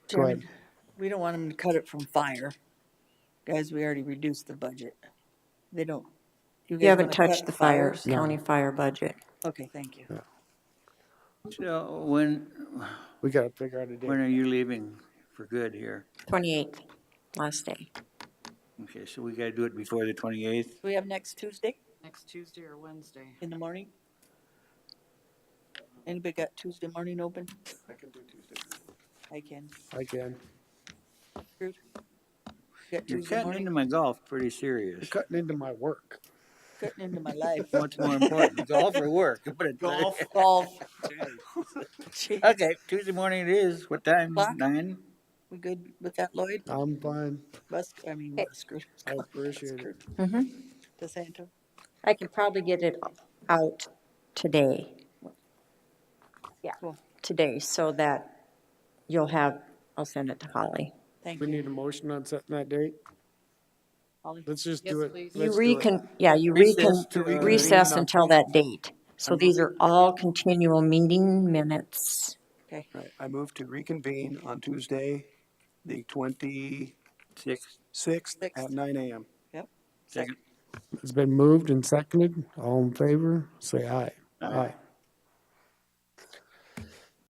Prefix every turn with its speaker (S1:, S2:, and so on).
S1: Go ahead.
S2: Chairman, we don't want them to cut it from fire. Guys, we already reduced the budget. They don't. guys
S3: You haven't
S2: wanna cut
S3: touched the fires,
S1: No.
S3: county fire budget.
S2: Okay, thank you.
S4: So when,
S1: We gotta figure out a
S4: when
S1: date.
S4: are you leaving for good here?
S3: 28th, last day.
S4: Okay, so we gotta do it before the twenty-eighth?
S2: We have next Tuesday
S5: Next Tuesday or Wednesday?
S2: in the morning? Anybody got Tuesday morning open? I can do Tuesday. I
S1: I can.
S2: can. Got
S4: You're
S2: Tuesday
S4: cutting
S2: morning,
S4: into my golf pretty serious.
S1: Cutting into my work.
S2: cutting into my life.
S4: What's more important, golf or work? Put it-
S2: Golf. Gee,
S4: Okay, Tuesday morning it is. What time?
S2: O'clock?
S4: Nine?
S2: We good with that, Lloyd?
S1: I'm fine.
S2: Bus, I mean, Busker,
S1: I appreciate it.
S3: Mhm.
S2: DeSanto?
S3: I can probably get it out today. Yeah,
S2: Cool.
S3: today, so that you'll have, I'll send it to Holly.
S2: Thank
S1: We
S2: you,
S1: need a motion on setting that date.
S2: Holly.
S1: Let's just do
S5: Yes,
S1: it.
S5: please.
S3: You
S1: Let's do it.
S3: recon, yeah, you
S4: Recess
S3: recon,
S4: to reconvene
S3: recess
S1: on-
S3: until that date. So these are all continual meeting minutes.
S2: Okay,
S6: Right, I move to reconvene on Tuesday, the twenty-sixth
S4: Six?
S2: Sixth.
S6: at nine AM.
S2: yep.
S4: Second.
S1: It's been moved and seconded. All in favor, say aye. Aye.